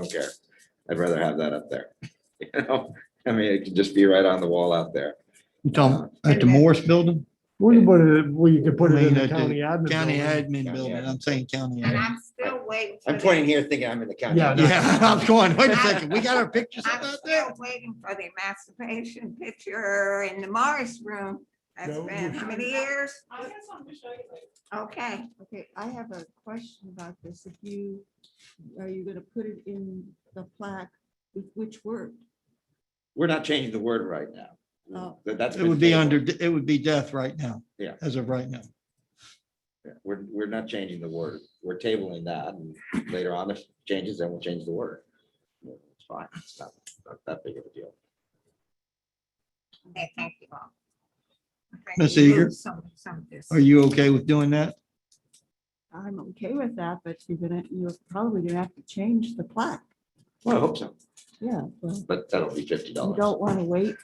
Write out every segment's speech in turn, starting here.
don't care. I'd rather have that up there. You know, I mean, it could just be right on the wall out there. Uh, You talking at the Morris Building? We can put it, well, you can put it in I uh, the mean, at county the admin. County building. admin County building, admin. I'm saying county. And admin. I'm still waiting. for I'm the- pointing here thinking I'm in the county. Yeah, no. Yeah, I'm going, wait a second, we got our pictures up I'm out there? still waiting for the emancipation picture in the Morris room. That's No, been we- how many years? I got something to show you later. Okay, Okay, I have a question about this. If you, are you gonna put it in the plaque with which word? We're not changing the word right now. Oh. That- That's. It been would be tabled. under, it would be death right now. Yeah. As of right now. Yeah, We're, we're not changing the word. We're tabling that and later on, if it changes, then we'll change the word. It's fine. It's not, not that big of a deal. okay, thank you all. I think Ms. we Eager? lose Some, some of this. Are you okay with doing that? I'm okay with that, but you're gonna, you're probably gonna have to change the plaque. Well, I hope so, Yeah, well, but that'll be fifty you dollars. don't wanna wait.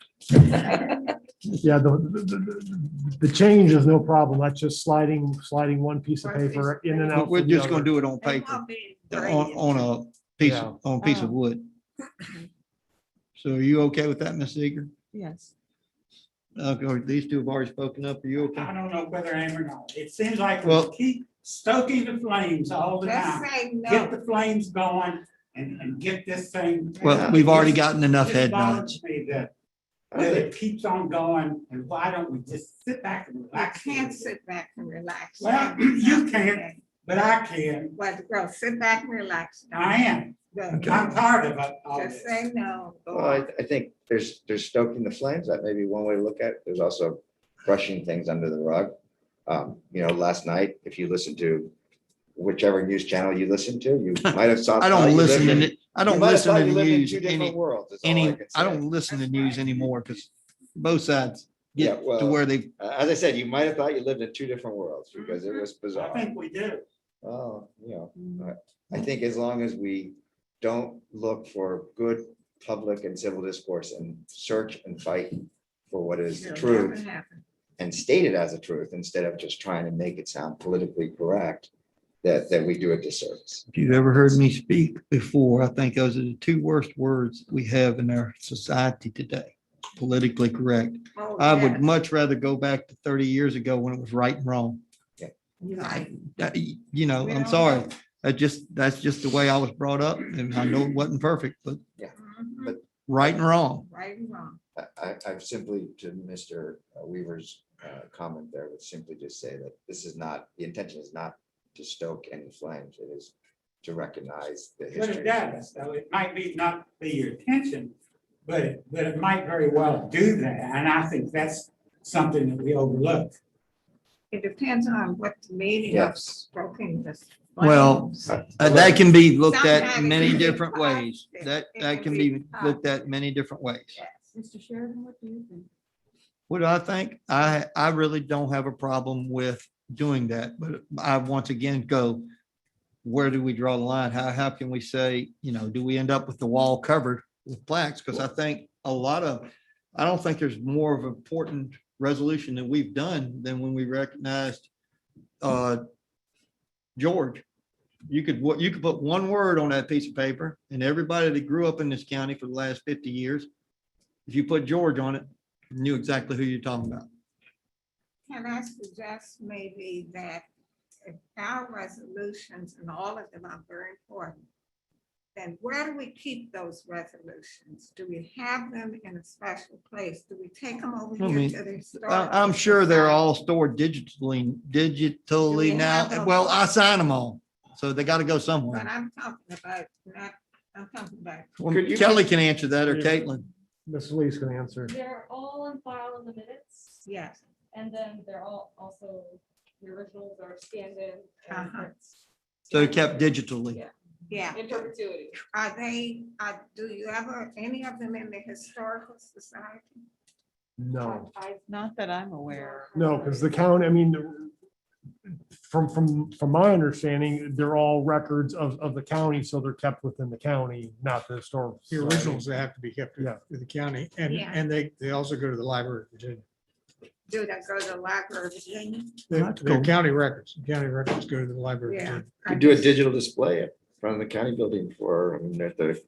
Yeah, the, the, the- the change is no problem. That's just sliding, sliding one piece of Right, paper in and We're- out. We're from the just gonna other. do it on It paper, won't be on, graded. on a piece, of- on a piece of Oh. Yeah. wood. So are you okay with that, Ms. Eager? Yes. Okay, these two have already spoken up, are you okay? I don't know whether I am or not. It seems like Well- we keep stoking the flames all the Just time. say Get no. the flames going and, and get this thing. Well, we've already This- gotten enough this head nods. bothers me That that it keeps on going and why don't we just sit back and I relax? a little can't bit? sit back and relax. Well, you can't. But I can. Well, girl, sit back and relax. I am. Good. I'm tired of it all Just this. say no. go Well, I, on. I think there's, there's stoking the flames. That may be one way to look at it. There's also brushing things under the rug. Um, you know, last night, if you listen to whichever news channel you listen to, you might have saw. I thought don't you lived listen to, in- ni- I you don't might have listen thought to you the lived in news two different any, worlds, is all any, can I say. don't listen to news anymore because both sides Yeah, get to well, where they, Uh, As I said, you might have thought you lived in two different worlds because it was I bizarre. think we do. Well, you know, I think as long as we don't look for good public and civil discourse and search and fight for what is the It'll truth never happen. and state it as a truth instead of just trying to make it sound politically correct, that, that we do a disservice. if you've ever heard me speak before, I think those are the two worst words we have in our society today. Politically correct. Oh, I yeah. would much rather go back to thirty years ago when it was right and wrong. You're I, right. that- you know, We I'm don't sorry. have- I just, that's just the way I was brought up and I know it wasn't perfect, but Mhm. right and wrong. Right and wrong. I- I, I've simply, to Mr. Weaver's uh, comment there, would simply just say that this is not, the intention is not to stoke any flames. It is to recognize the But it history. does, so it might be not be your intention, but, it- but it might very well do that, and I think that's something that we overlook. It depends on what the meaning of Yes. stroking this. Well, flames. Uh, Uh, That can be looked at Sometimes in many it's different positive. ways. That, It that can can be be looked at many different ways. Yes. Mr. Sheridan, what do you think? What do I think? I, I really don't have a problem with doing that, but I once again go, where do we draw the line? How, how can we say, you know, do we end up with the wall covered with plaques? Because I think a lot of, I don't think there's more of an important resolution that we've done than when we recognized uh George. You could, what, you could put one word on that piece of paper and everybody that grew up in this county for the last fifty years, if you put George on it, knew exactly who you're talking about. Can I suggest maybe that if our resolutions and all of them are very important, then where do we keep those resolutions? Do we have them in a special place? Do we take them over I here mean, to the I- historical I'm sure they're society? all stored digitally, Do we digitally have now. them? Well, I sign them all, so they gotta go But somewhere. I'm talking about, not, I'm talking about Well, Could you- Kelly can answer that or Yeah. Caitlin. Mrs. Lee's gonna answer. They're all in file in the minutes, Yes, and then they're all also, the originals are scanned in. and Uh-huh. it's So they're kept digitally. yeah. In perpetuity. Are they, are, do you ever, any of them in the historical society? No, I- Not that I'm aware. no, because the count, I mean, the- from, from, from my understanding, they're all records of, of the county, so they're kept within the county, not the historical. The Society. originals, they have to be kept Yeah. with the county and, Yeah. and they, they also go to the Library of Virginia. Do they go to the Library of Virginia? They- That's They're cool. county records, county records go to the Library of Yeah. Virginia. You do a digital display in front front of the county building for, I mean, at the